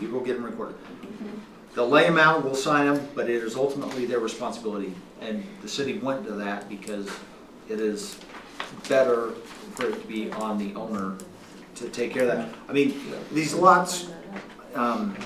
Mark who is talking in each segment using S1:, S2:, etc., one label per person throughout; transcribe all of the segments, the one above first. S1: you go get them recorded. They'll lay them out, we'll sign them, but it is ultimately their responsibility. And the city went to that because it is better for it to be on the owner to take care of that. I mean, these lots, um.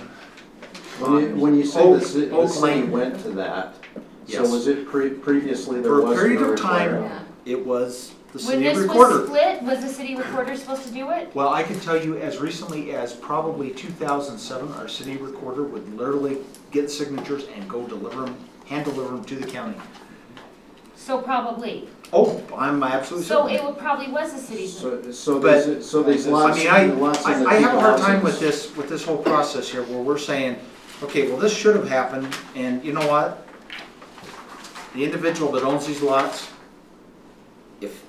S2: When you, when you say
S1: Oak-
S2: the ci- the
S1: Oak
S2: city
S1: Lane.
S2: went to that, so
S1: Yes.
S2: was it pre- previously there
S1: For a
S2: was no
S1: period of
S2: requirement?
S1: time, it was the
S3: When
S1: city
S3: this
S1: recorder.
S3: was split, was the city recorder supposed to do it?
S1: Well, I can tell you as recently as probably 2007, our city recorder would literally get signatures and go deliver them, hand deliver them to the county.
S3: So probably.
S1: Oh, I'm absolutely
S3: So
S1: certain.
S3: it wa- probably was the city's.
S2: So, so
S1: But-
S2: these, so these
S1: I
S2: lots,
S1: mean,
S2: the lots
S1: I,
S2: in the
S1: I I have a hard time
S2: 2000s.
S1: with this, with this whole process here where we're saying, okay, well, this should have happened and you know what? The individual that owns these lots, if,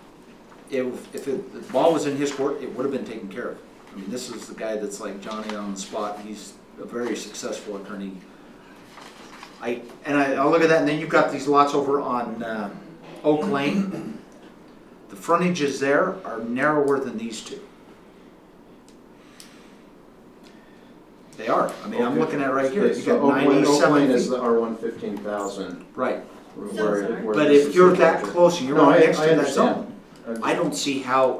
S1: if, if it- the ball was in his court, it would have been taken care of. I mean, this is the guy that's like Johnny on the spot. He's a very successful attorney. I, and I, I look at that and then you've got these lots over on, uh, Oak Lane. The frontages there are narrower than these two. They are. I mean, I'm
S2: Okay.
S1: looking at it right here.
S2: Okay,
S1: You
S2: so
S1: got
S2: Oak Lane- Oak Lane
S1: ninety-seven
S2: is
S1: feet.
S2: the R one fifteen thousand.
S1: Right.
S2: where- where
S1: But
S2: this
S1: if
S2: is
S1: you're that
S2: located.
S1: close and you're
S2: No,
S1: right
S2: I-
S1: next
S2: I
S1: to that
S2: understand.
S1: zone, I don't see how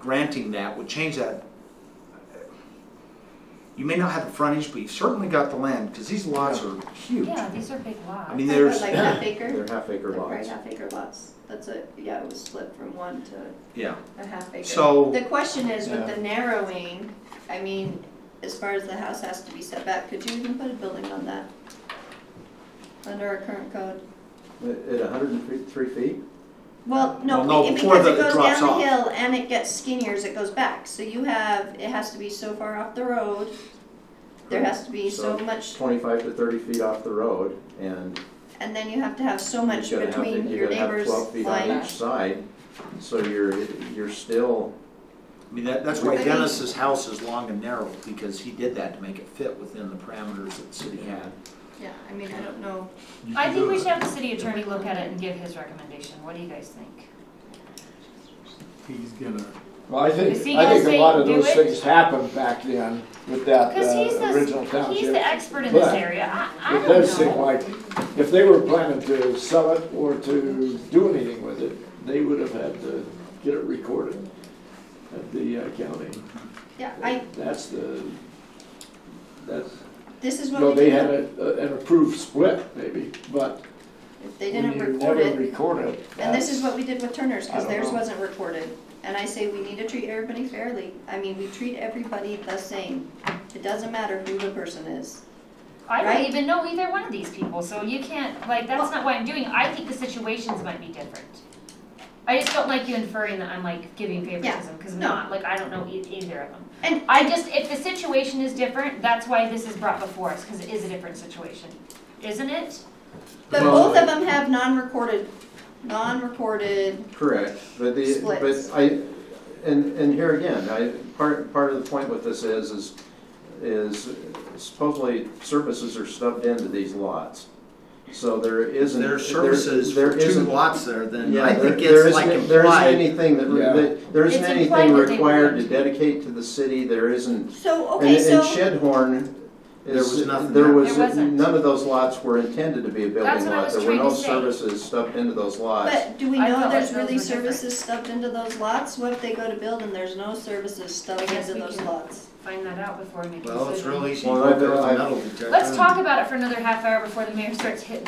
S1: granting that would change that. You may not have the frontage, but you've certainly got the land, because these lots are huge.
S3: Yeah, these are big lots.
S1: I mean, there's,
S4: Like half acre,
S2: They're half acre
S4: like right
S2: lots.
S4: half acre lots. That's it, yeah, it was split from one to
S1: yeah.
S4: a half acre.
S1: So-
S4: The question is with
S5: Yeah.
S4: the narrowing, I mean, as far as the house has to be set back, could you even put a building on that? Under our current code?
S2: At at hundred and three feet?
S4: Well,
S1: Well, no,
S4: no, be-
S1: before
S4: because
S1: the-
S4: it
S1: it
S4: goes
S1: drops
S4: down the
S1: off.
S4: hill and it gets skinnier as it goes back. So you have, it has to be so far off the road, there has to be so
S2: So-
S4: much,
S2: Twenty-five to thirty feet off the road and
S4: and then you have to have so much
S2: you're gonna have to-
S4: between
S2: you're
S4: your
S2: gonna have
S4: neighbors'
S2: Twelve feet on each
S4: lines.
S2: side, so you're, you're still,
S1: I mean, that, that's
S4: I
S1: why
S4: mean-
S1: Dennis's house is long and narrow, because he did that to make it fit within the parameters that the city had.
S4: Yeah, I mean, I don't know.
S3: I think we should have the city attorney look at it and give his recommendation. What do you guys think?
S5: He's gonna.
S6: Well, I
S3: Is
S6: think,
S3: he
S6: I
S3: gonna
S6: think a
S3: say
S6: lot of
S3: do
S6: those
S3: it?
S6: things happened back then with that
S3: Because he's
S6: uh, original
S3: the, he's the
S6: township.
S3: expert in this
S6: But
S3: area. I, I
S6: It does
S3: don't
S6: seem
S3: know.
S6: like, if they were planning to sell it or to do anything with it, they would have had to get it recorded at the uh, county.
S4: Yeah, I,
S6: That's the, that's,
S4: this is what
S6: no,
S4: we
S6: they had
S4: did.
S6: a- a- an approved split maybe, but
S4: If they
S6: when
S4: didn't
S6: you
S4: record
S6: never
S4: it,
S6: record it.
S4: and this is
S6: that's-
S4: what we did with Turner's,
S6: I
S4: because
S6: don't
S4: theirs
S6: know.
S4: wasn't recorded. And I say we need to treat everybody fairly. I mean, we treat everybody the same. It doesn't matter who the person is.
S3: I don't
S4: right?
S3: even know either one of these people, so you can't, like, that's
S4: Well-
S3: not what I'm doing. I think the situations might be different. I just don't like you inferring that I'm like giving favoritism, because I'm
S4: no.
S3: not, like, I don't know e- either of them.
S4: And
S3: I just, if the situation is different, that's why this is brought before us, because it is a different situation, isn't it?
S4: But
S2: Well-
S4: both of them have non-recorded, non-recorded,
S2: Correct, but the,
S4: Splits.
S2: but I, and, and here again, I, part, part of the point with this is, is, is supposedly services are stubbed into these lots. So there isn't.
S1: There are
S2: there-
S1: services
S2: there
S1: for two
S2: isn't-
S1: lots there, then
S2: Yeah,
S1: I
S2: there-
S1: think
S2: there
S1: it's like
S2: isn't- There isn't
S1: implied.
S2: anything that, re-
S6: Yeah.
S2: that- there isn't
S3: It's implied
S2: anything
S3: that they
S2: required to
S3: weren't.
S2: dedicate to the city, there isn't.
S4: so,
S2: And,
S4: okay,
S2: and
S4: so,
S2: Shedhorn
S1: There was
S2: is,
S1: nothing
S2: there
S1: there.
S2: was,
S3: There wasn't.
S2: none of those lots were intended to be a
S3: That's
S2: building
S3: what I
S2: lot,
S3: was
S2: there were
S3: trying
S2: no
S3: to say.
S2: services stubbed into those lots.
S4: but do we
S3: I
S4: know
S3: felt like
S4: there's
S3: those
S4: really
S3: were different.
S4: services stuffed into those lots? What if they go to build and there's no services stuffed
S3: I guess
S4: into
S3: we
S4: those
S3: can-
S4: loats?
S3: Find that out before we make a decision.
S1: Well, it's really easy.
S2: Well, I've- I've-
S3: Let's talk about it for another half hour before the mayor starts hitting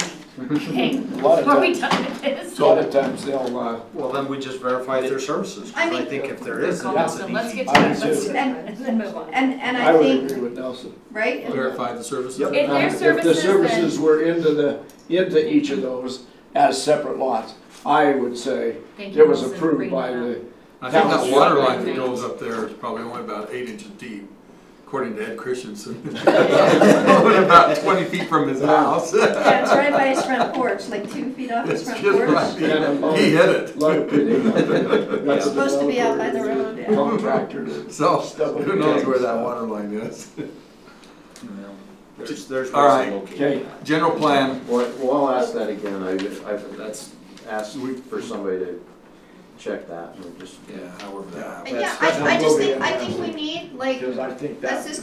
S3: me, okay?
S6: lot of
S3: Before we done with this.
S6: A lot of times they'll, uh,
S1: Well, then we just verify if there's services, 'cause
S4: I
S1: I
S4: mean-
S1: think if there is, then
S3: Call
S1: it's
S3: Nelson.
S1: an
S3: let's
S1: easy.
S3: get to that,
S6: I do
S3: let's
S6: too.
S3: do that, and then move on.
S4: And, and
S6: I
S4: I
S6: would
S4: think,
S6: agree with Nelson.
S4: right? And-
S7: verify the services.
S3: If
S6: Um,
S3: there's
S6: If the
S3: services,
S6: services
S3: then,
S6: were into the, into each of those as separate lots, I would say
S3: thank you,
S6: it was
S3: Nelson, for
S6: approved
S3: bringing
S6: by
S3: that up.
S6: the,
S7: I think that water
S6: Yeah.
S7: line that goes up there is probably only about eight inches deep, according to Ed Christensen. Only about twenty feet from his house.
S4: Yeah, it's right by his front porch, like two feet off his
S7: It's
S4: front
S7: just
S4: porch.
S7: right. He hit it.
S6: lot of bidding. That's
S4: It's supposed to be out by the road, yeah.
S6: Contractor to
S7: So,
S6: Stuff
S7: who knows
S6: like
S7: where
S6: that.
S7: that water line is?
S1: Well, There's, there's.
S7: All
S1: ways
S7: right.
S1: to locate
S6: Okay.
S1: that.
S7: General plan,
S2: Well, well, I'll ask that again, I, I've
S1: That's,
S2: asked for somebody to check that, and just
S1: yeah, however that.
S4: Yeah,
S7: yeah.
S6: That's-
S4: I, I
S6: that
S4: just
S6: will be
S4: think, I think we
S6: interesting.
S4: need, like,
S6: Because I think
S4: that's
S6: that's.
S4: just